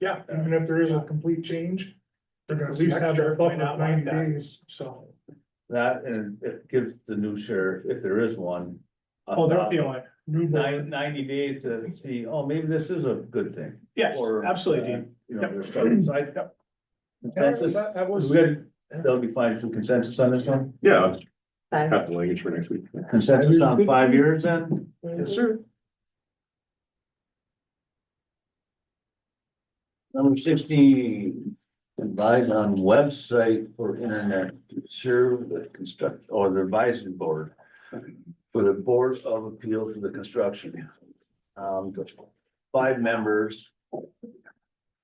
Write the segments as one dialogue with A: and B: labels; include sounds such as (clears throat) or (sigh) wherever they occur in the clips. A: Yeah, even if there is a complete change, they're gonna at least have
B: Extra
A: their buffer
B: might not
A: of
B: like
A: ninety
B: that.
A: days, so.
C: That, and it gives the new sheriff, if there is one. a
B: Oh, they're feeling,
A: new board.
C: Nine, ninety days to see, oh, maybe this is a good thing.
B: yes,
C: or,
B: absolutely,
C: uh,
B: Dean.
C: You know, they're starting, so I. Consensus,
A: That that was,
C: we good, that'll be fine, so consensus on this one,
D: Yeah,
E: Bye.
D: have the language for next week.
C: consensus on five years then?
A: yes, sir.
C: Number sixteen, advise on website for internet, to serve the construct, or the advisory board. For the Board of Appeals for the Construction. Um, the five members.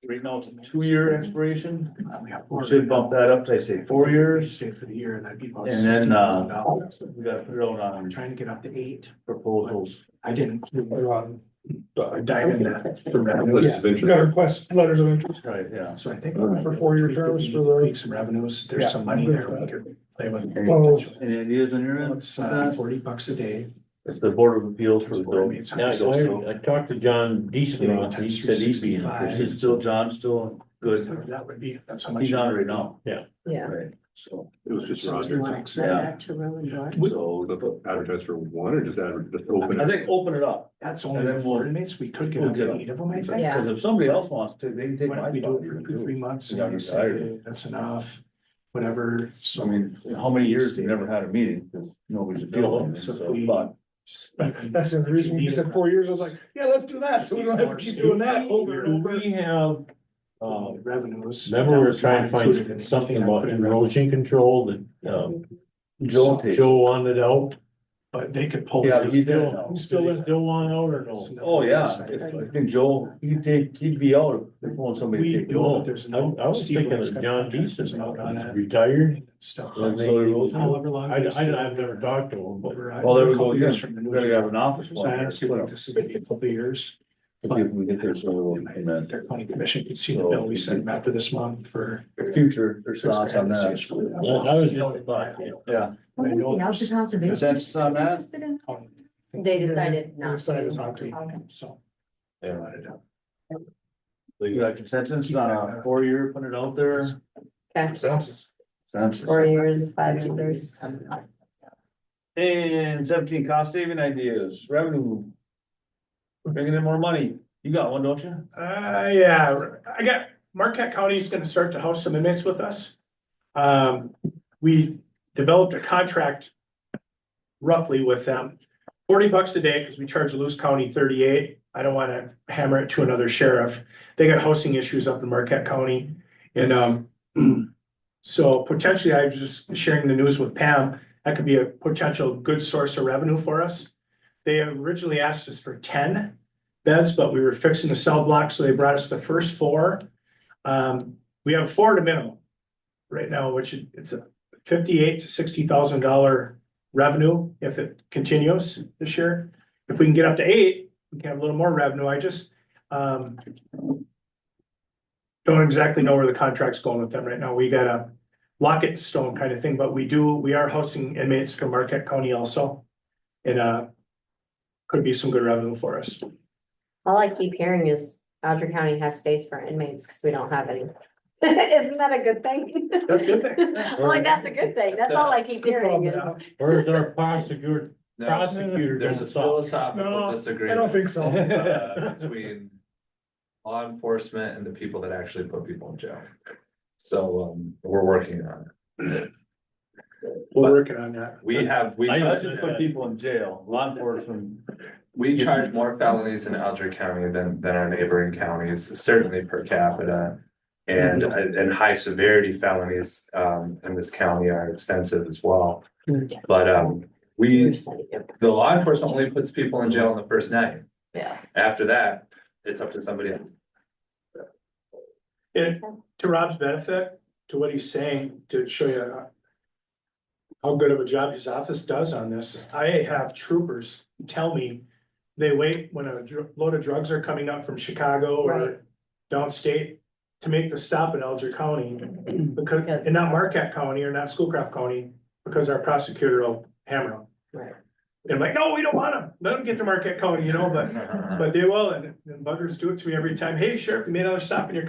C: Right now, it's a two-year expiration,
B: We have
C: we
B: four.
C: should bump that up to, I say, four years.
B: Stay for the year and that'd be. about
C: And then, uh,
B: $60,000.
C: We got to out
B: I'm
C: on
B: trying to get up to eight,
C: proposals.
B: I didn't. include- I
D: List
B: dive into that. for revenue.
A: Yeah,
D: of
A: we got
D: interest.
A: request letters of interest.
C: Right, yeah.
B: So I think.
A: For four-year terms for the-
B: Tweak some revenues,
A: Yeah,
B: there's some money
A: I'm
B: there
A: good
B: we
A: with that.
B: could play with.
A: Well-
C: Any ideas on your end?
B: It's uh, forty bucks a day.
C: It's the Board of Appeals for the
B: Board
C: building.
B: meets on
F: Now,
B: Thursday.
F: I, I talked to John Deason on, it. he said he'd be
C: Is
F: interested.
C: it still, John, still good?
B: That would be, that's how much.
C: He's on it right now.
E: Yeah.
C: Right, so,
D: It was just
B: So it's
D: Roger.
B: like-
E: Send that to Roland Dorn.
C: so,
D: Advertise for one or just adver- just open
C: I
D: it?
C: think open it up.
B: That's only
C: And then
B: the four
C: we'll-
B: inmates, we could get
C: we'll
B: up
C: get
B: to
C: up.
B: eight of them, I think.
E: Yeah.
C: Because if somebody else wants to, they can take
B: Why
C: my
B: don't we do it for two, three
C: spot.
B: months
C: Yeah,
B: and
C: I'm
B: you
C: tired.
B: say, that's enough, whatever,
C: I
B: so.
C: mean, how many years we never had a meeting, because nobody's appealing,
B: So if
C: so,
B: we-
C: but.
A: That's the reason we said four years. I was like, yeah, let's do that. So we don't have to keep doing that over and over.
F: We have, uh,
B: Um, revenues.
F: remember we were
B: are
F: trying to find something about erosion control that, um,
C: Joel takes.
F: Joe wanted out.
B: But they could pull.
C: Yeah,
B: it.
C: he did. No.
F: Still is, still want out or
B: It's
F: no?
B: nothing
C: Oh, yeah,
B: else.
C: If- I think Joel, he'd take, he'd be out if they want somebody to
B: We
C: take
B: know
C: Joel.
B: that there's no.
F: I, I was
B: Steve
F: thinking
B: Wilkes
F: of
B: got
F: John
B: contractors out on
F: Deason,
B: it.
F: he's retired.
B: Stuff.
F: And they-
C: So he goes, "Oh,
B: However long.
F: I,
B: those-
F: I, I've never talked to him, but
B: Over-
C: Well, there we
B: a couple
C: go, yeah.
B: years from the new
C: We're gonna have
B: year.
C: an office
B: So
C: one
B: I
C: here,
B: honestly
C: split
B: think
C: up.
B: this is gonna be a couple of years.
C: If we can get there sooner or later,
B: Their county commission could see the bill we sent them after this month for.
C: amen. Future, there's thoughts on that.
F: Yeah, that was just a thought, yeah.
C: Yeah,
B: Wasn't the Alta
E: Conservation?
C: Consensus on that?
E: They decided
B: They
E: not
B: decided
E: to.
B: not to.
E: Okay.
B: So.
F: Yeah.
B: Brought it up.
C: you got consensus on a four-year, uh, put it out there.
E: Okay.
A: Sounds-
C: Consensus.
E: Four years, five years.
C: And seventeen, cost saving ideas, revenue. We're bringing in more money, you got one, don't you?
B: Uh, yeah, I got, Marquette County is gonna start to house some inmates with us. Um, we developed a contract roughly with them. Forty bucks a day, because we charge Lewis County thirty-eight. I don't wanna hammer it to another sheriff. They got housing issues up in Marquette County. And, um, (clears throat) so potentially, I was just sharing the news with Pam, that could be a potential good source of revenue for us. They originally asked us for ten beds, but we were fixing the cell block, so they brought us the first four. Um, we have four at a minimum right now, which it- it's a fifty-eight to sixty thousand dollar revenue if it continues this year. If we can get up to eight, we can have a little more revenue. I just, um, don't exactly know where the contract's going with them right now. We got a lock it in stone kind of thing, but we do, we are housing inmates from Marquette County also. And, uh, could be some good revenue for us.
E: All I keep hearing is Dodger County has space for inmates because we don't have any. (laughs) Isn't that a good thing?
B: That's a good thing.
E: (laughs) I'm Like, that's a good thing. That's all I keep hearing is.
F: Where's our prosecutor,
C: (laughs)
F: prosecutor?
G: There's a
A: No,
G: philosophical
A: I don't
G: disagreement
A: think so.
G: uh, between law enforcement and the people that actually put people in jail. So, um, we're working on it.
B: We're working on that.
G: We have, we,
C: I
G: charge-
C: just put people in jail, law enforcement,
G: we charge more felonies in Alger County than, than our neighboring counties, certainly per capita. And, and high severity felonies, um, in this county are extensive as well. But, um, we, the law enforcement only puts people in jail on the first night.
E: Yeah.
G: After that, it's up to somebody else.
B: And to Rob's benefit, to what he's saying, to show you uh, how good of a job his office does on this, I have troopers tell me they wait when a dr- load of drugs are coming up from Chicago
E: Right.
B: or downstate to make the stop in Alger
E: (clears throat)
B: County, because,
E: Because-
B: and not Marquette County or not Schoolcraft County, because our prosecutor will hammer them.
E: Right.
B: And I'm like, no, we don't want them. Let them get to
G: (laughs)
B: Marquette County, you know, but, but they will, and and buggers do it to me every time. Hey, Sheriff, you made another stop in your